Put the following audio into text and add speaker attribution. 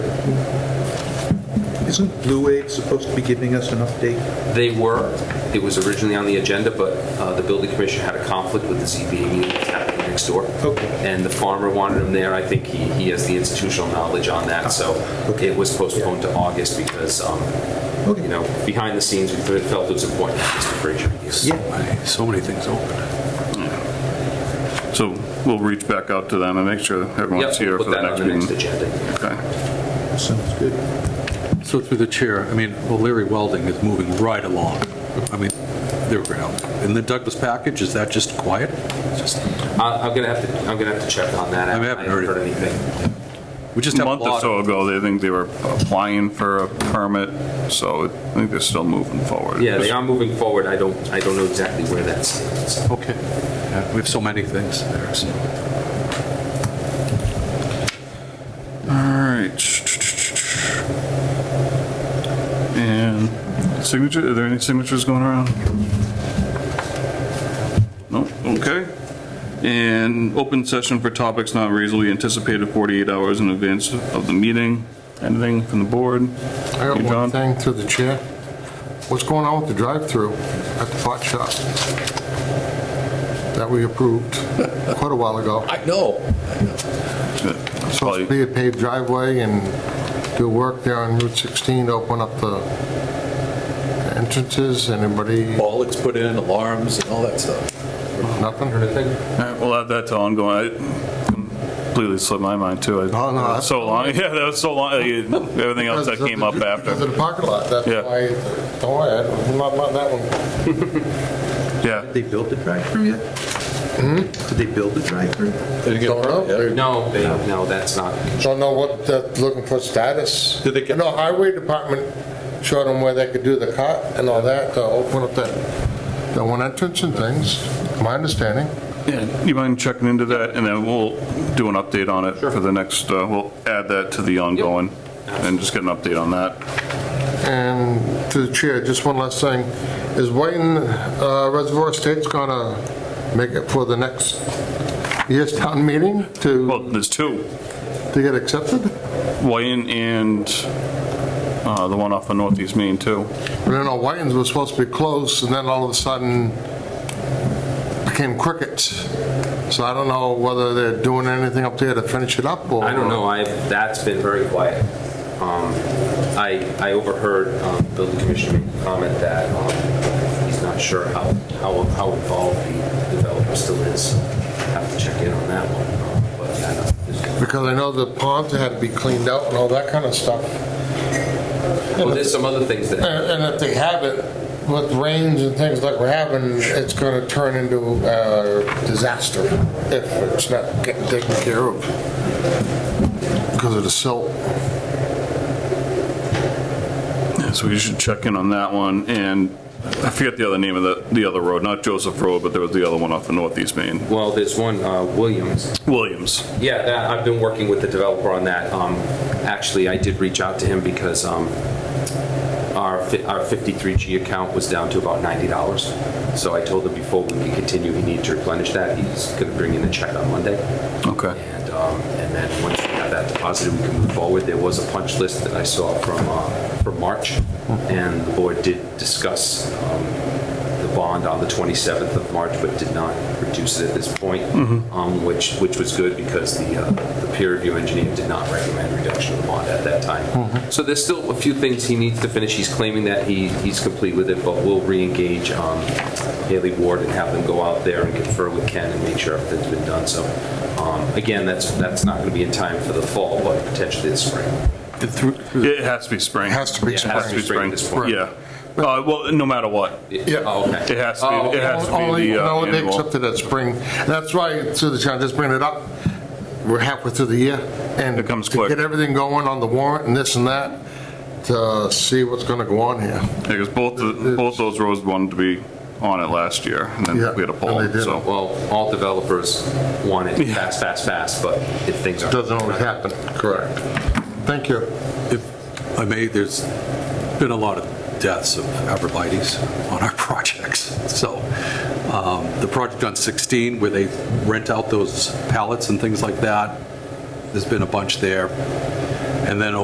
Speaker 1: Isn't Blue Wave supposed to be giving us an update?
Speaker 2: They were. It was originally on the agenda, but uh, the building commissioner had a conflict with the ZBA meeting that's happening next door.
Speaker 1: Okay.
Speaker 2: And the farmer wanted him there. I think he he has the institutional knowledge on that, so
Speaker 1: Okay.
Speaker 2: it was postponed to August because, um,
Speaker 1: Okay.
Speaker 2: you know, behind the scenes, we felt it was important to have Mr. Frazier here.
Speaker 3: Yeah. So many things open.
Speaker 4: So we'll reach back out to them and make sure everyone's here
Speaker 2: Yep,
Speaker 4: for
Speaker 2: put
Speaker 4: the
Speaker 2: that
Speaker 4: next
Speaker 2: on the next
Speaker 4: meeting.
Speaker 2: agenda.
Speaker 4: Okay.
Speaker 1: Sounds good.
Speaker 3: So through the chair, I mean, well, Larry Welding is moving right along. I mean, they're ground. And the Douglas package, is that just quiet? Just-
Speaker 2: I- I'm gonna have to, I'm gonna have to check on that.
Speaker 3: I haven't heard
Speaker 2: heard
Speaker 3: it.
Speaker 2: anything.
Speaker 3: We just
Speaker 4: A
Speaker 3: have a
Speaker 4: month or
Speaker 3: lot of
Speaker 4: so ago, they think they were applying for a permit, so I think they're still moving forward.
Speaker 2: Yeah, they are moving forward. I don't, I don't know exactly where that stands.
Speaker 3: Okay. Yeah, We have so many things there, so.
Speaker 4: All right. And signature, are there any signatures going around? No, okay. And open session for topics not reasonably anticipated 48 hours in advance of the meeting. Anything from the board?
Speaker 5: I got
Speaker 4: Hey, John?
Speaker 5: one thing through the chair. What's going on with the drive-through at the pot shop that we approved quite a while ago?
Speaker 3: I know.
Speaker 4: That's
Speaker 5: Supposed to
Speaker 4: probably-
Speaker 5: be a paved driveway and do work there on Route 16 to open up the entrances. Anybody,
Speaker 3: Bollock's put in, alarms and all that stuff.
Speaker 5: nothing?
Speaker 4: All right, Well, that- that's ongoing. I Completely slipped my mind too. I-
Speaker 5: Oh, no, that's-
Speaker 4: So long, yeah, that was so long, everything else that
Speaker 5: Because of
Speaker 4: came
Speaker 5: the-
Speaker 4: up after.
Speaker 5: Because of the parking lot, that's
Speaker 4: Yeah.
Speaker 5: why, don't worry, I'm not about that one.
Speaker 4: Yeah.
Speaker 1: They built the drive-through yet? Did they build the drive-through?
Speaker 5: Don't know. They
Speaker 2: No, they- no, that's not.
Speaker 5: Don't know what, they're looking for status. Did they get? No, highway department showed them where they could do the cut and all that, to open up that, the one entrance and things, my understanding.
Speaker 4: Yeah, you mind checking into that, and then we'll do an update on it for the next, uh, we'll add that to the ongoing, and just get an update on that.
Speaker 5: And to the chair, just one last thing, is Whiten uh, Reservoir Estates gonna make it for the next year's town meeting
Speaker 4: Well,
Speaker 5: to,
Speaker 4: there's two,
Speaker 5: to get accepted?
Speaker 4: Wayne and uh, the one off of Northeast Main, too.
Speaker 5: I don't know, Whiten's was supposed to be close, and then all of a sudden became crickets. So I don't know whether they're doing anything up there to finish it up, or...
Speaker 2: I don't know, I, that's been very quiet. Um, I, I overheard um, building commissioner make a comment that um, he's not sure how, how how involved the developer still is. Have to check in on that one. um, But yeah, no, there's-
Speaker 5: Because I know the ponds had to be cleaned out and all that kind of stuff.
Speaker 2: Well, there's some other things that,
Speaker 5: And and if they have it, with rains and things like we're having, it's going to turn into a disaster if it's not getting taken care of because of the silt.
Speaker 4: So you should check in on that one, and I forget the other name of the, the other road, not Joseph Road, but there was the other one off of Northeast Main,
Speaker 2: well, there's one, uh, Williams.
Speaker 4: Williams.
Speaker 2: Yeah, that, I've been working with the developer on that. Um, Actually, I did reach out to him because um, our fi- our 53G account was down to about $90. So I told him before we could continue, he needed to replenish that. He's going to bring in a check on Monday.
Speaker 4: Okay.
Speaker 2: And um, and then once we have that deposited, we can move forward. There was a punch list that I saw from, uh, from March, and the board did discuss um, the bond on the 27th of March, but did not reduce it at this point,
Speaker 4: Mm-hmm.
Speaker 2: um, which, which was good because the, uh, the peer review engineer did not recommend reduction of the bond at that
Speaker 4: Mm-hmm.
Speaker 2: time. So there's still a few things he needs to finish. He's claiming that he, he's complete with it, but we'll reengage um, Haley Ward and have them go out there and confer with Ken and make sure everything's been done. So um, again, that's, that's not going to be in time for the fall, but potentially this spring.
Speaker 3: Did through- through the-
Speaker 4: It has to be spring.
Speaker 5: It has to be
Speaker 4: It has to be
Speaker 2: spring.
Speaker 4: spring,
Speaker 2: Spring at this point.
Speaker 4: yeah. Uh, Well, no matter what, it
Speaker 5: Yeah.
Speaker 2: Oh, okay.
Speaker 4: has to be, it has to be
Speaker 5: Only,
Speaker 4: the uh,
Speaker 5: no, they
Speaker 4: annual.
Speaker 5: accepted that spring. That's why, to the chair, just bringing it up, we're halfway through the year, and
Speaker 4: It comes
Speaker 5: to
Speaker 4: quick.
Speaker 5: Get everything going on the warrant and this and that, to see what's going to go on here.
Speaker 4: Because both, the- both those roads wanted to be on it last year, and then
Speaker 5: Yeah,
Speaker 4: we had a poll,
Speaker 5: and they didn't.
Speaker 4: so.
Speaker 2: Oh, Well, all developers want it fast, fast, fast, but if things aren't.
Speaker 5: Doesn't always happen. Correct. Thank you.
Speaker 3: If I may, there's been a lot of deaths of arborvitae's on our projects. So um, the project on 16, where they rent out those pallets and things like that, there's been a bunch there. And then